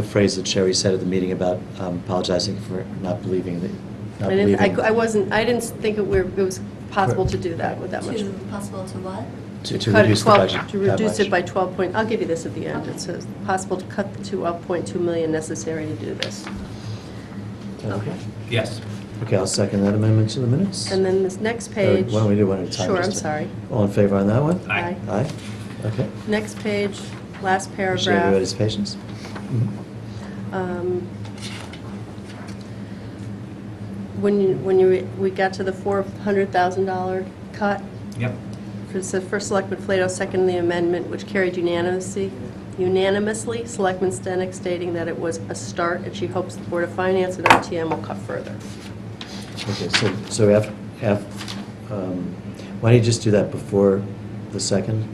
the phrase that Sherry said at the meeting about um, apologizing for not believing that, not I didn't, I cou- I believing, wasn't, I didn't think it were, it was possible to do that with that much. To, possible to what? to to Cut it reduce the 12 budget. To that reduce it much. by 12 point, I'll give you this at the end. Okay. It says, possible to cut the 2.2 million necessary to do this. Okay. Yes. Okay, I'll second that amendment to the minutes. And then this next Or page. Why don't we do one at a time? Sure, I'm just to- sorry. All in favor on that one? Aye. Aye? Okay. Next page, last Appreciate everybody's paragraph. patience. Um, When you, when you, we got to the $400,000 cut, Yep. It says, first Selectman Flato, second the amendment, which carried unanimously, unanimously, Selectman Stenick stating that it was a start, and she hopes the Board of Finance and RTM will cut further. Okay, so, so af, af, um, why don't you just do that before the second?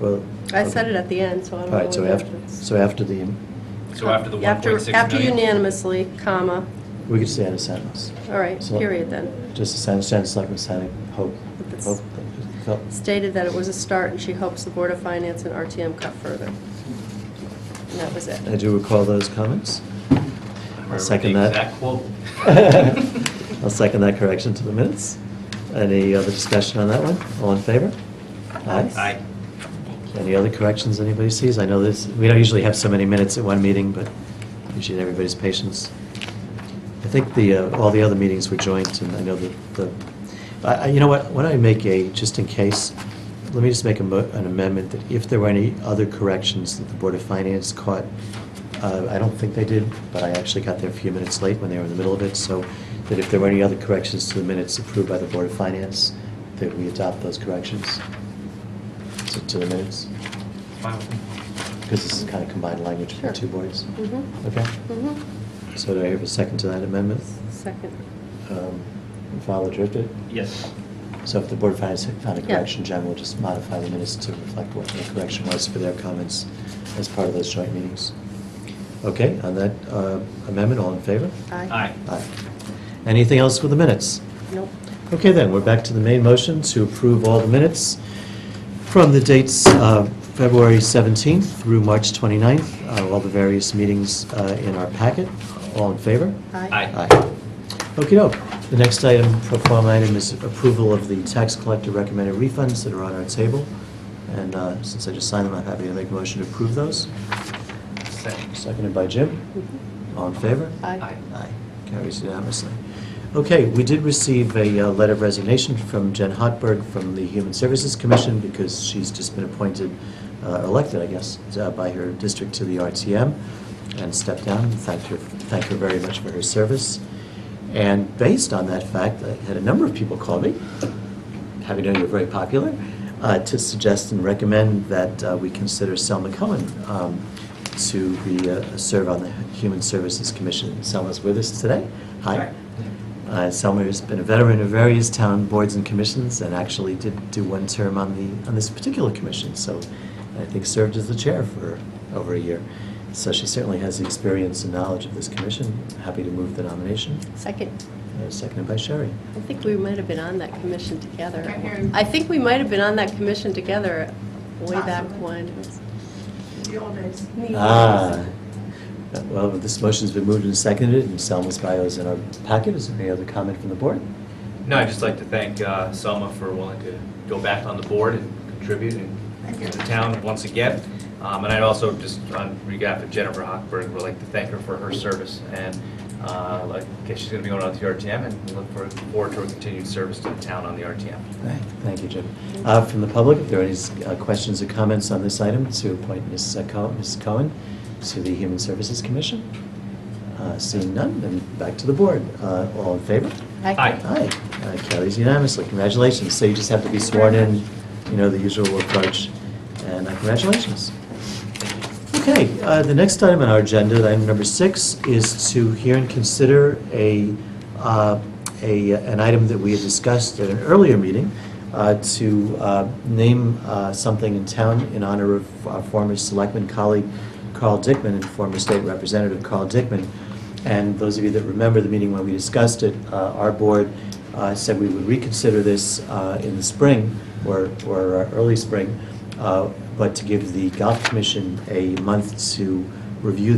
Well. I said it at the end, so I All don't know. right, so whether after, it's- so after the, So after the 1.6 million? After unanimously, comma, we could say add a sentence. all right, So- period then. Just a sentence, sentence like we're saying, hope, But that's- hope. hope. Stated that it was a start, and she hopes the Board of Finance and RTM cut further. And that was it. I do recall those comments. I remember second the that. exact quote. I'll second that correction to the minutes. Any other discussion on that one? All in favor? Aye. Any other corrections anybody sees? I know this, we don't usually have so many minutes at one meeting, but appreciate everybody's patience. I think the, uh, all the other meetings were joint, and I know that the, I- I- you know what, why don't I make a, just in case, let me just make a mo- an amendment that if there were any other corrections that the Board of Finance caught, uh, I don't think they did, but I actually got there a few minutes late when they were in the middle of it, so that if there were any other corrections to the minutes approved by the Board of Finance, that we adopt those corrections to to the minutes, Wow. because this is kind of combined language for the Sure. two boards. Mhm, Okay, mhm. so do I have a second to that amendment? Second. Um, If I'll adjourn it. Yes. So if the Board of Finance found a Yeah. correction, John will just modify the minutes to reflect what the correction was for their comments as part of those joint meetings. Okay, on that uh, amendment, all in favor? Aye. Aye. Aye. Anything else with the minutes? Nope. Okay, then, we're back to the main motion to approve all the minutes from the dates of February 17th through March 29th, uh, all the various meetings uh, in our packet. All in favor? Aye. Aye. Okey-doke. The next item, pro forma item, is approval of the tax collector recommended refunds that are on our table. And uh, since I just signed them, I'm happy to make a motion to approve those. Second. Seconded by Jim. Mhm. All in favor? Aye. Aye. Aye. Carries unanimously. Okay, we did receive a uh, letter of resignation from Jen Hotberg from the Human Services Commission because she's just been appointed, uh, elected, I guess, uh, by her district to the RTM and stepped down. Thank her, thank her very much for her service. And based on that fact, I had a number of people call me, having known you're very popular, uh, to suggest and recommend that uh, we consider Selma Cohen um, to be, uh, serve on the Human Services Commission. Selma's with us today. Hi. Uh, Selma has been a veteran of various town boards and commissions, and actually did do one term on the, on this particular commission, so I think served as the chair for over a year. So she certainly has the experience and knowledge of this commission. Happy to move the nomination. Second. Uh, Seconded by Sherry. I think we might have been on that commission together. Right here. I think we might have been on that commission together way back Possibly. when. The old days. Ah, well, this motion's been moved and seconded, and Selma's bio is in our packet. Is there any other comment from the board? No, I'd just like to thank uh, Selma for willing to go back on the board and contribute and Thank you. to the town once again. Um, And I'd also, just on behalf of Jennifer Hochberg, would like to thank her for her service. And uh, like, I guess she's going to be going on to the RTM, and we look for- forward to her continued service to the town on the RTM. Thank you, Jim. Uh, From the public, if there are any uh, questions or comments on this item, to appoint Ms. Co- Ms. Cohen to the Human Services Commission. Uh, Seeing none, then back to the board. Uh, All in favor? Aye. Aye. Uh, Carries unanimously. Congratulations. So you just have to be sworn in, you know, the usual approach, and uh, congratulations. Okay, uh, the next item on our agenda, item number six, is to hear and consider a, uh, a, an item that we had discussed at an earlier meeting, uh, to uh, name uh, something in town in honor of our former selectman colleague Carl Dickman and former state representative Carl Dickman. And those of you that remember the meeting when we discussed it, uh, our board uh, said we would reconsider this uh, in the spring, or, or uh, early spring, uh, but to give the golf commission a month to review